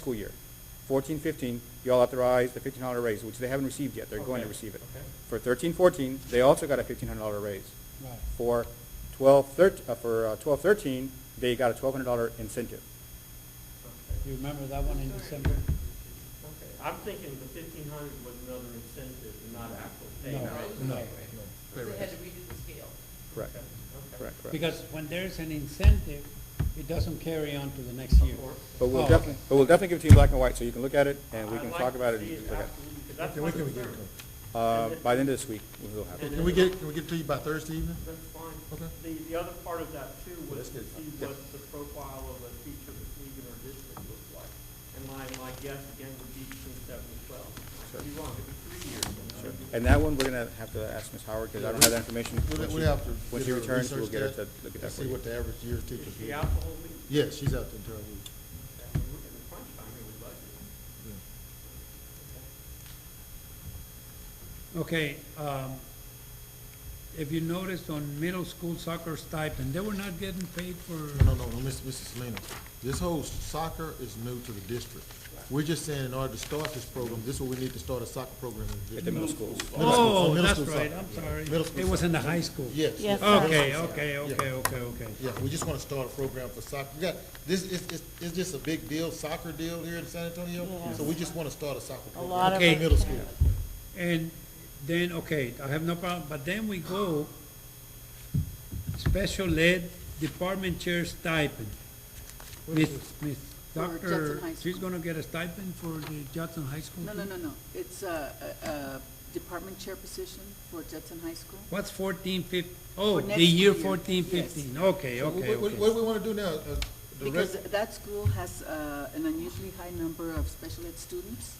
school year. Fourteen, fifteen, y'all authorized the fifteen dollar raise, which they haven't received yet, they're going to Okay, receive it. okay. For thirteen, fourteen, they also got a fifteen hundred dollar raise. Right. For twelve, thirt, uh, for uh, twelve, thirteen, they got a twelve hundred dollar incentive. You remember that one in December? Okay. I'm thinking the fifteen hundred was another incentive, and not actual pay. No, raise. no. They had to redo the scale. Correct, Okay, okay. correct, correct. Because when there's an incentive, it doesn't carry on to the next year. Of course. But Oh, we'll okay. definitely, but we'll definitely give it to you in black and white, so you can look at it, and we I'd can like talk to about it. see and look at it. absolutely, 'cause that's Okay, my we can- we can concern. Uh, by the end of this week, we'll have it. Can we get, can we get to you by Thursday evening? That's fine. Okay. The, the other part of that too was to Let's get- see yeah. what the profile of a teacher league in our district looks like. And my, my guess again would be between seven and twelve. Sure. Could be wrong, could be three years. uh, Sure. And that one, we're gonna have to ask Ms. Howard, because I don't have that information. We'll, When we'll she- have to. When get she her returns, we'll research get her to that look at and that for See you. what the average year teacher. Is she do. out the whole week? Yeah, she's out the entire week. Yeah, I mean, We're in the crunch time here with budget. Yeah. Okay, um, if you noticed on middle school soccer stipend, they were not getting paid for, No, no, no, no, Miss- Mrs. Lena, this whole soccer is new to the district. We're just saying in order to start this program, this is what we need to start a soccer program in the At the middle district. schools. Middle school, so oh, middle that's school right, soccer. I'm sorry. Middle school It was in the high school. Yes. Yes, sir. Okay, okay, okay, okay, okay. Yeah, we just want to start a program for soccer. We got, this is, it's, it's just a big deal, soccer deal here in San Antonio. Yeah. So we just want to start a soccer program. lot of Okay. us In middle school. And then, okay, I have no problem, but then we go special ed department chair stipend. Miss, Miss, For Judson doctor, High she's School. gonna get a stipend for the Judson High School? No, no, too? no, no. It's a, a- a department chair position for Judson High School. What's fourteen fif, oh, next the year year, fourteen yes. fifteen, okay, What, okay, what- what do okay. we want to do now? Uh, the Because rest- that school has uh, an unusually high number of special ed students.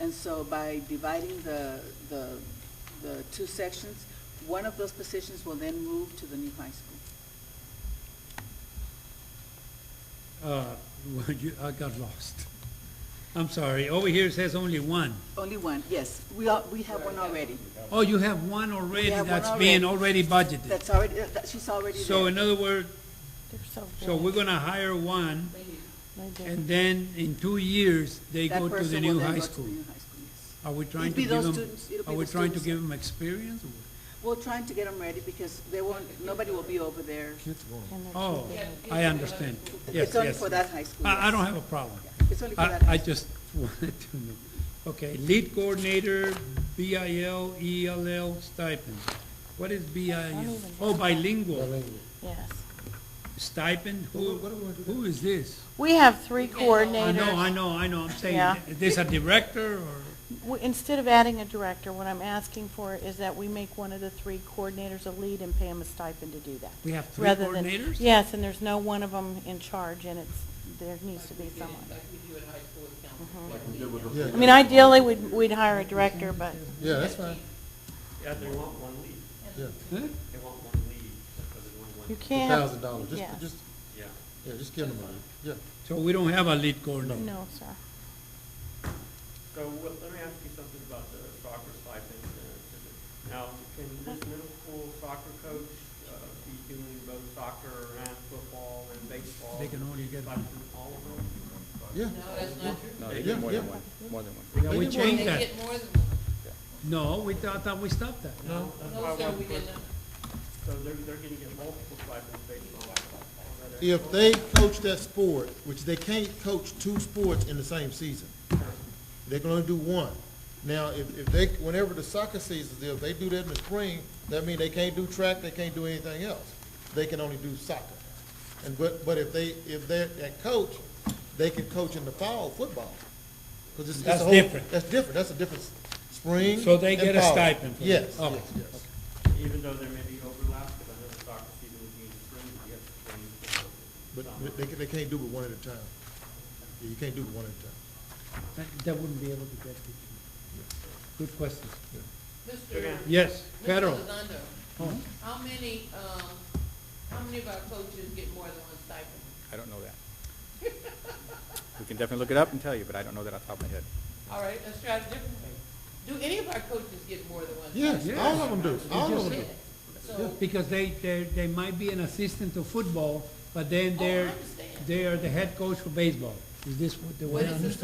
And so by dividing the, the, the two sections, one of those positions will then move to the new high school. Uh, well, you, I got lost. I'm sorry, over here it says only one. Only one, yes. We all, we have one already. Oh, you have one already have one that's being already budgeted. That's already, uh, that, she's already there. So in other words, They're so so we're big. gonna hire one, They're big. and then in two years, they That go to the person new will then high go to the school. new high school, yes. Are we trying It'll to be give those them, students- it'll be are we the trying to students. give them experience? or- We're trying to get them ready because they won't, nobody will be over there. Kids are going. And they're too Oh, big. I understand. Yes, It's only yes, for yes. that high school. I, I yes. don't have a problem. It's only for I, that high I school. just wanted to know. Okay, lead coordinator, BIL, ELL E stipend. What is BIL? even Oh, bilingual Yes. stipend? Who, What- what do we wanna do who is this? We have three I know, I coordinators. know, I know, I'm saying, Yeah. is this a director or? We- Instead of adding a director, what I'm asking for is that we make one of the three coordinators a lead and pay him a stipend to do that. We have three rather than- coordinators? Yes, and there's no one of them in charge, and it's, there needs to be Mm-hmm. someone. Yeah, I mean, ideally, we'd, we'd hire a director, but Yeah, that's fine. Yeah, they want one lead. Yeah, They want one lead, because they want one. you a can't. thousand dollars. Just, Yeah. just, Yeah. yeah, just give them money. Yeah. So we don't have a lead coordinator? No, sir. So, well, let me ask you something about the soccer stipend. uh, Now, can this middle school soccer coach uh, be doing both soccer and football and baseball? They can only get Like, one. All of them? Yeah. No, they Yeah, get more than yeah. one, more than one. Yeah, They we get changed that. Get more than one. No, we thought, I thought we stopped that. No. That's why I No, sir, want we to- did not. So they're, they're gonna get multiple stipends based on all that. If they coach that sport, which they can't coach two sports in the same season, they can only do one. Now, if, if they, whenever the soccer season is, if they do that in the spring, that means they can't do track, they can't do anything else. They can only do soccer. And, but, but if they, if they're, that coach, they can coach in the fall football. 'Cause it's- it's a That's whole- different. That's different, that's a different s- spring So they and get a fall. stipend for that. Yes, yes, Okay. yes. Even though there may be overlap, because I know the soccer season would be in spring, you have spring. football, But summer. they, they can't do it one at a time. Yeah, You can't do it one at a time. That- That wouldn't be able to get it. Good question. Mr. Yes, Mr. federal. Redondo, How many, um, how many of our coaches get more than one stipend? I don't know that. We can definitely look it up and tell you, but I don't know that off the top of my head. All right, let's try it a different way. Do any of our coaches get more than one? Yes, Yeah. all of them do, all of them do. So, Because they, they, they might be an assistant to football, but then oh, I they're, understand. they are the head coach for baseball. Is this what they But want to it's the understand?